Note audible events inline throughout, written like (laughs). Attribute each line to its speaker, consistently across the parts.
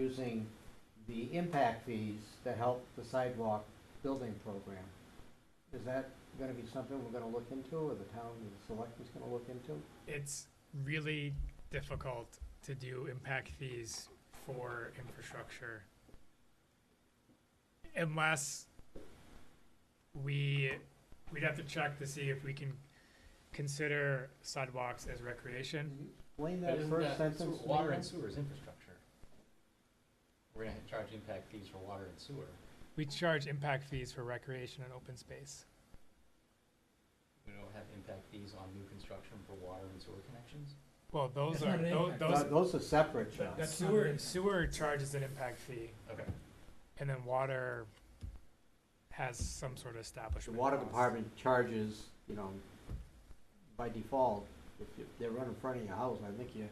Speaker 1: using the impact fees to help the sidewalk building program. Is that gonna be something we're gonna look into, or the town, and the selectmen's gonna look into?
Speaker 2: It's really difficult to do impact fees for infrastructure. Unless we, we'd have to check to see if we can consider sidewalks as recreation.
Speaker 1: Explain that first sentence. to me
Speaker 3: Water
Speaker 1: again.
Speaker 3: and sewer is infrastructure. We're gonna charge impact fees for water and sewer.
Speaker 2: We charge impact fees for recreation and open space.
Speaker 3: We don't have impact fees on new construction for water and sewer connections?
Speaker 2: Well, those
Speaker 4: That's
Speaker 2: are,
Speaker 4: not an
Speaker 2: tho-
Speaker 4: impact.
Speaker 1: No,
Speaker 2: those,
Speaker 1: Those are separate, John.
Speaker 4: That's not
Speaker 2: sewer,
Speaker 4: an-
Speaker 2: sewer charges an impact fee,
Speaker 3: Okay.
Speaker 2: and then water has some sort of
Speaker 1: The
Speaker 2: establishment.
Speaker 1: water
Speaker 2: cost.
Speaker 1: department charges, you know, by default, if you- they run in front of your house, I think you,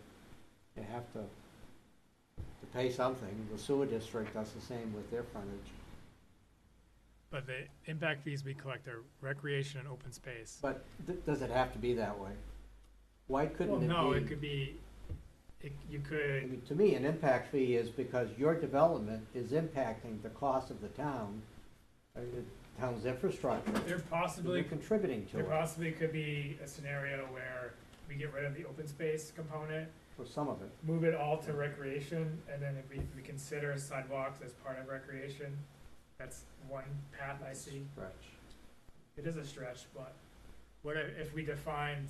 Speaker 1: you have to, to pay something. The sewer district does the same with their frontage.
Speaker 2: But the impact fees we collect are recreation and open space.
Speaker 1: But th- does it have to be that way? Why couldn't
Speaker 2: Well,
Speaker 1: it be?
Speaker 2: no, it could be, it, you
Speaker 1: I
Speaker 2: could,
Speaker 1: mean, to me, an impact fee is because your development is impacting the cost of the town, uh, the town's infrastructure.
Speaker 2: there
Speaker 1: You're
Speaker 2: possibly,
Speaker 1: contributing to
Speaker 2: there
Speaker 1: it,
Speaker 2: possibly could be a scenario where we get rid of the open space component,
Speaker 1: for some of it.
Speaker 2: move it all to recreation, and then if we, we consider sidewalks as part of recreation, that's one path I see.
Speaker 1: Stretch.
Speaker 2: It is a stretch, but what if, if we defined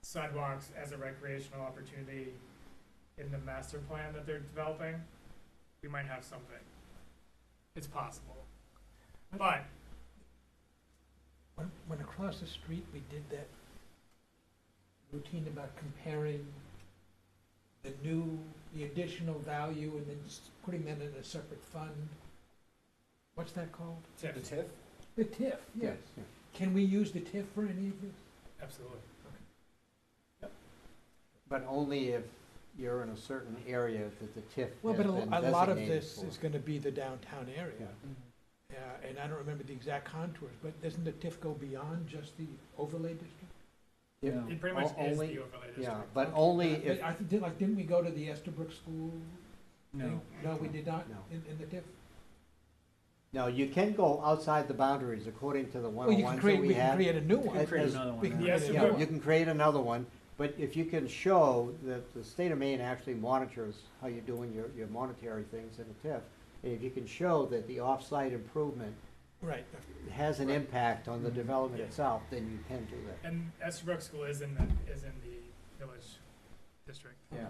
Speaker 2: sidewalks as a recreational opportunity in the master plan that they're developing? We might have something. It's possible. But
Speaker 4: When, when across the street, we did that routine about comparing the new, the additional value and then just putting that in a separate fund. What's that called?
Speaker 2: TIF,
Speaker 3: The TIF?
Speaker 4: The TIF, yes.
Speaker 1: Yeah.
Speaker 4: Can we use the TIF for any of this?
Speaker 2: absolutely.
Speaker 1: But only if you're in a certain area that the TIF
Speaker 4: Well,
Speaker 1: has
Speaker 4: but
Speaker 1: been
Speaker 4: a- a lot of
Speaker 1: designated
Speaker 4: this
Speaker 1: for.
Speaker 4: is gonna be the downtown
Speaker 1: Yeah.
Speaker 4: area.
Speaker 3: Mm-hmm.
Speaker 4: Uh, and I don't remember the exact contours, but doesn't the TIF go beyond just the overlay district?
Speaker 1: If-
Speaker 5: No.
Speaker 2: It pretty much
Speaker 1: O-
Speaker 2: is the
Speaker 1: only-
Speaker 2: overlay district.
Speaker 1: Yeah, but only
Speaker 4: I-
Speaker 1: if,
Speaker 4: I think, did- like, didn't we go to the Estabrook School?
Speaker 5: No,
Speaker 4: No, we did not,
Speaker 1: No.
Speaker 4: in, in the TIF?
Speaker 1: no, you can go outside the boundaries according to the
Speaker 4: Well, you can
Speaker 1: 101s
Speaker 4: create,
Speaker 1: that
Speaker 4: we
Speaker 1: we
Speaker 4: can
Speaker 1: have.
Speaker 4: create a new
Speaker 5: we
Speaker 4: one.
Speaker 5: can create
Speaker 1: As-
Speaker 5: another one.
Speaker 4: we can
Speaker 5: now.
Speaker 2: Yeah, create so another
Speaker 1: Yeah,
Speaker 2: one.
Speaker 1: you can create another one, but if you can show that the state of Maine actually monitors how you're doing your, your monetary things in the TIF, and if you can show that the off-site improvement
Speaker 4: Right.
Speaker 1: has an impact on the development
Speaker 2: Yeah.
Speaker 1: itself, then you can do that.
Speaker 2: And Estabrook School is in the, is in the village district.
Speaker 1: Yeah.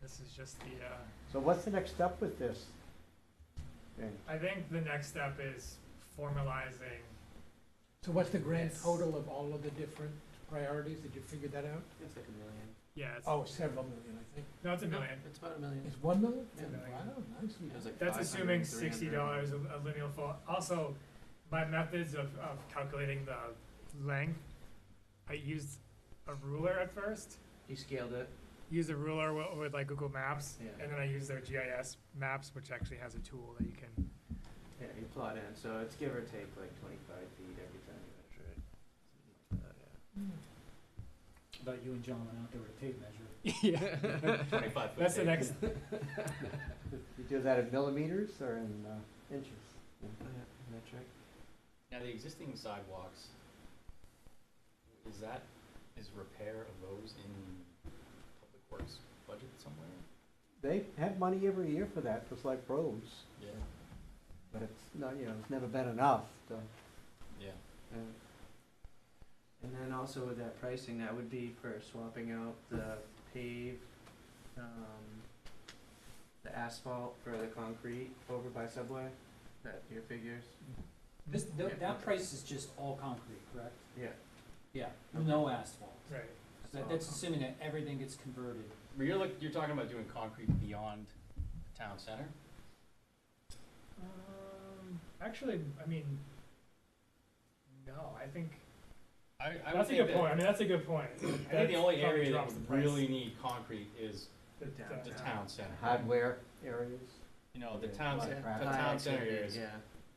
Speaker 2: This is just the, uh,
Speaker 1: So what's the next step with this? thing?
Speaker 2: I think the next step is formalizing,
Speaker 4: So what's the grand
Speaker 2: Yes.
Speaker 4: total of all of the different priorities? Did you figure that out?
Speaker 3: It's like a million.
Speaker 2: yeah, it's,
Speaker 4: Oh, several million, I think.
Speaker 2: no, it's a million.
Speaker 3: It's about a million.
Speaker 4: It's one million?
Speaker 3: Yeah.
Speaker 4: Wow, nicely
Speaker 3: It
Speaker 4: done.
Speaker 3: was like
Speaker 2: That's
Speaker 3: 500,
Speaker 2: assuming sixty
Speaker 3: 300.
Speaker 2: dollars a a lineal foot. Also, my methods of, of calculating the length, I used a ruler at first.
Speaker 3: You scaled it.
Speaker 2: Use a ruler wi- with like Google Maps,
Speaker 3: Yeah.
Speaker 2: and then I use their GIS maps, which actually has a tool that you can,
Speaker 5: Yeah, you plot in, so it's give or
Speaker 3: (laughs)
Speaker 5: take like twenty-five feet every time you measure it. Something like that, yeah.
Speaker 4: Hmm.
Speaker 5: About you and John went out there with a tape measure.
Speaker 2: yeah.
Speaker 3: Twenty-five foot.
Speaker 2: That's the
Speaker 3: tape. (laughs)
Speaker 2: next,
Speaker 1: You do that in millimeters or in uh, inches?
Speaker 5: metric.
Speaker 3: Now, the existing sidewalks, is that, is repair of those in public works budget somewhere?
Speaker 1: They have money every year for that, just like roads,
Speaker 3: Yeah.
Speaker 1: but it's not, you know, it's never been enough to,
Speaker 3: Yeah.
Speaker 1: and
Speaker 5: And then also with that pricing, that would be for swapping out the paved, um, the asphalt for the concrete over by Subway, that your figures?
Speaker 6: This, tho-
Speaker 3: Yeah.
Speaker 6: that price is just all concrete, correct?
Speaker 5: Yeah.
Speaker 6: Yeah, no asphalt.
Speaker 2: right.
Speaker 6: That,
Speaker 5: all
Speaker 4: Oh.
Speaker 6: that's
Speaker 5: concrete.
Speaker 6: assuming that everything gets converted.
Speaker 3: But you're look, you're talking about doing concrete beyond the town center?
Speaker 2: Um, actually, I mean, no, I think,
Speaker 3: I, I would
Speaker 2: that's a
Speaker 3: think
Speaker 2: good
Speaker 3: that,
Speaker 2: point. I mean, that's a good point.
Speaker 3: I think the only area that
Speaker 2: drops the
Speaker 3: would
Speaker 2: price.
Speaker 3: really need concrete is
Speaker 2: The-
Speaker 5: The
Speaker 2: the-
Speaker 3: the
Speaker 5: Yeah.
Speaker 3: town center.
Speaker 1: hardware areas.
Speaker 3: You know, the
Speaker 1: Yeah.
Speaker 3: town,
Speaker 1: Lot
Speaker 3: cen-
Speaker 1: of
Speaker 3: the
Speaker 1: traffic.
Speaker 3: town center areas,
Speaker 5: Yeah.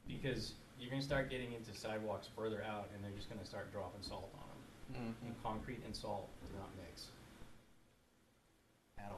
Speaker 3: because you're gonna start getting into Mm-hmm. Hmm. sidewalks further out and they're just gonna start dropping salt on them. And concrete and salt do not mix.